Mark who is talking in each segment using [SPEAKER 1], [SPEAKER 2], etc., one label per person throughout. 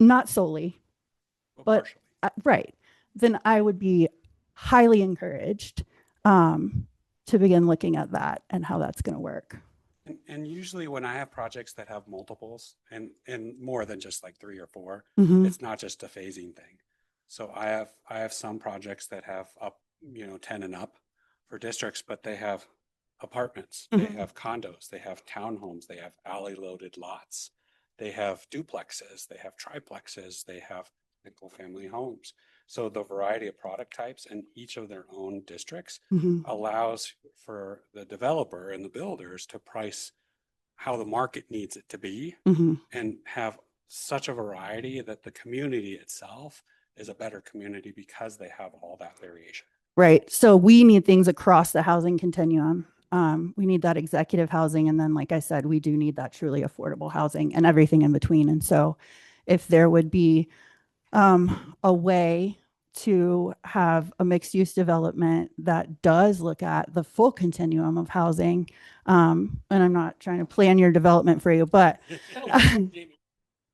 [SPEAKER 1] not solely,
[SPEAKER 2] Well,
[SPEAKER 1] But-
[SPEAKER 2] Oh, partially.
[SPEAKER 1] uh, right, then I would be highly encouraged um, to begin looking at that and how that's going to work.
[SPEAKER 2] And, and usually when I have projects that have multiples and, and more than just like three or four,
[SPEAKER 1] Mhm.
[SPEAKER 2] it's not just a phasing thing. So I have, I have some projects that have up, you know, ten and up for districts, but they have apartments, they
[SPEAKER 1] Mhm.
[SPEAKER 2] have condos, they have townhomes, they have alley loaded lots. They have duplexes, they have triplexes, they have single family homes. So the variety of product types in each of their own districts
[SPEAKER 1] Mhm.
[SPEAKER 2] allows for the developer and the builders to price how the market needs it to be
[SPEAKER 1] Mhm.
[SPEAKER 2] and have such a variety that the community itself is a better community because they have all that variation.
[SPEAKER 1] Right. So we need things across the housing continuum. Um, we need that executive housing. And then, like I said, we do need that truly affordable housing and everything in between. And so, if there would be um, a way to have a mixed use development that does look at the full continuum of housing, um, and I'm not trying to plan your development for you, but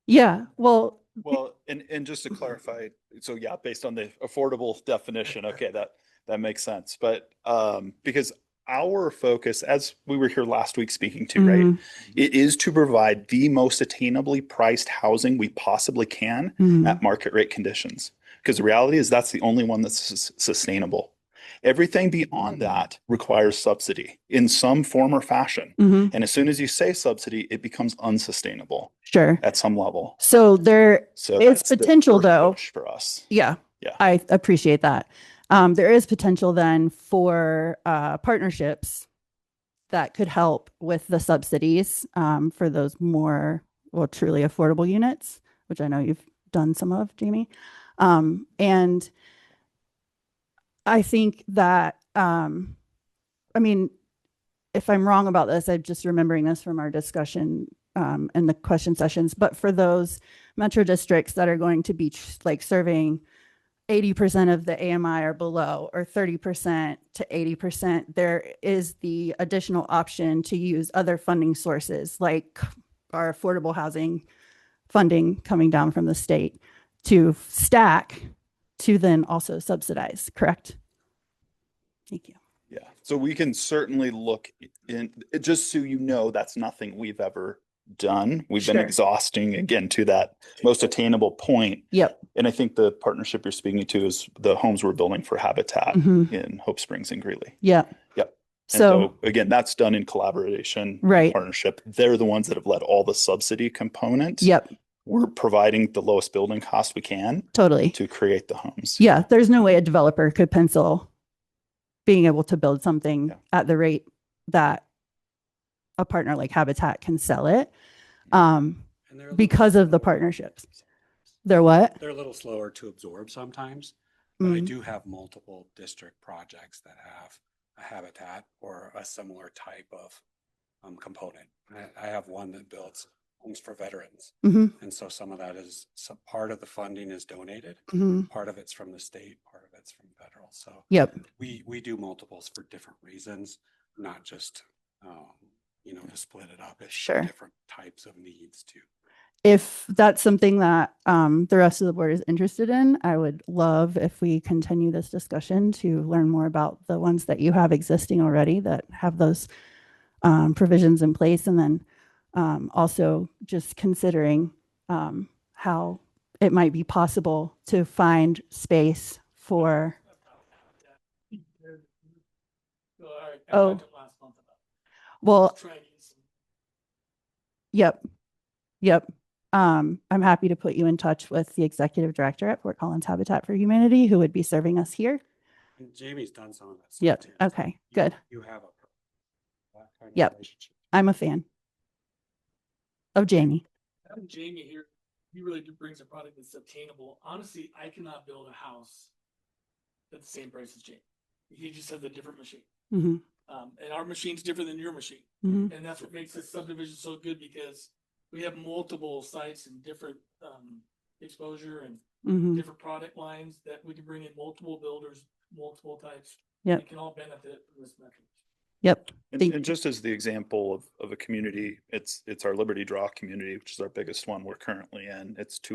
[SPEAKER 1] yeah, well,
[SPEAKER 3] Well, and, and just to clarify, so yeah, based on the affordable definition, okay, that, that makes sense. But, um, because our focus, as we were here last week speaking to, right?
[SPEAKER 1] mhm,
[SPEAKER 3] It is to provide the most attainably priced housing we possibly can
[SPEAKER 1] mhm,
[SPEAKER 3] at market rate conditions. Because the reality is that's the only one that's sus- sustainable. Everything beyond that requires subsidy in some form or fashion.
[SPEAKER 1] mhm,
[SPEAKER 3] And as soon as you say subsidy, it becomes unsustainable
[SPEAKER 1] sure.
[SPEAKER 3] at some level.
[SPEAKER 1] So there,
[SPEAKER 3] So
[SPEAKER 1] It's
[SPEAKER 3] that's the
[SPEAKER 1] potential,
[SPEAKER 3] first
[SPEAKER 1] though.
[SPEAKER 3] push For us.
[SPEAKER 1] Yeah.
[SPEAKER 3] Yeah.
[SPEAKER 1] I appreciate that. Um, there is potential then for uh, partnerships that could help with the subsidies um, for those more, well, truly affordable units, which I know you've done some of, Jamie. Um, and I think that, um, I mean, if I'm wrong about this, I'm just remembering this from our discussion um, in the question sessions. But for those metro districts that are going to be tr- like serving 80% of the AMI or below, or 30% to 80%, there is the additional option to use other funding sources like our affordable housing funding coming down from the state to stack to then also subsidize, correct? Thank you.
[SPEAKER 3] Yeah. So we can certainly look in, just so you know, that's nothing we've ever done. We've been
[SPEAKER 1] Sure.
[SPEAKER 3] exhausting again to that most attainable point.
[SPEAKER 1] Yep.
[SPEAKER 3] And I think the partnership you're speaking to is the homes we're building for Habitat
[SPEAKER 1] Mhm.
[SPEAKER 3] in Hope Springs and Greeley.
[SPEAKER 1] Yep.
[SPEAKER 3] Yep. And
[SPEAKER 1] So,
[SPEAKER 3] again, that's done in collaboration. and
[SPEAKER 1] Right.
[SPEAKER 3] Partnership. They're the ones that have led all the subsidy component.
[SPEAKER 1] yep,
[SPEAKER 3] We're providing the lowest building cost we can
[SPEAKER 1] totally.
[SPEAKER 3] to create the homes.
[SPEAKER 1] Yeah, there's no way a developer could pencil being able to build something
[SPEAKER 3] Yeah.
[SPEAKER 1] at the rate that a partner like Habitat can sell it um,
[SPEAKER 2] And they're a little
[SPEAKER 1] because of the
[SPEAKER 2] slower.
[SPEAKER 1] partnerships. They're what?
[SPEAKER 2] They're a little slower to absorb sometimes, but I
[SPEAKER 1] Mhm.
[SPEAKER 2] do have multiple district projects that have a habitat or a similar type of um, component. I, I have one that builds homes for veterans.
[SPEAKER 1] Mhm,
[SPEAKER 2] And so some of that is, some part of the funding is donated,
[SPEAKER 1] mhm.
[SPEAKER 2] part of it's from the state, part of it's from federal. So
[SPEAKER 1] Yep.
[SPEAKER 2] we, we do multiples for different reasons, not just, um, you know, to split it up. It's
[SPEAKER 1] Sure.
[SPEAKER 2] Different types of needs too.
[SPEAKER 1] If that's something that um, the rest of the board is interested in, I would love if we continue this discussion to learn more about the ones that you have existing already that have those um, provisions in place and then um, also just considering um, how it might be possible to find space for Oh. well yep yep um, i'm happy to put you in touch with the executive director at fort collins habitat for humanity who would be serving us here
[SPEAKER 2] And Jamie's done some of that. stuff
[SPEAKER 1] yep
[SPEAKER 2] too, so
[SPEAKER 1] okay
[SPEAKER 2] you-
[SPEAKER 1] good
[SPEAKER 2] You have a. that kind of
[SPEAKER 1] Yep.
[SPEAKER 2] relationship.
[SPEAKER 1] i'm a fan of jamie
[SPEAKER 4] having Jamie here, he really do- brings a product that's obtainable. Honestly, I cannot build a house at the same price as Jamie. He just has a different machine.
[SPEAKER 1] Mhm,
[SPEAKER 4] Um, and our machine's different than your machine.
[SPEAKER 1] mhm,
[SPEAKER 4] And that's what makes this subdivision so good because we have multiple sites and different, um, exposure and
[SPEAKER 1] mhm.
[SPEAKER 4] different product lines that we can bring in multiple builders, multiple types.
[SPEAKER 1] Yep.
[SPEAKER 4] It can all benefit from this mechanism.
[SPEAKER 1] yep
[SPEAKER 3] And,
[SPEAKER 1] Thank-
[SPEAKER 3] and just as the example of, of a community, it's, it's our Liberty Draw community, which is our biggest one we're currently in. It's two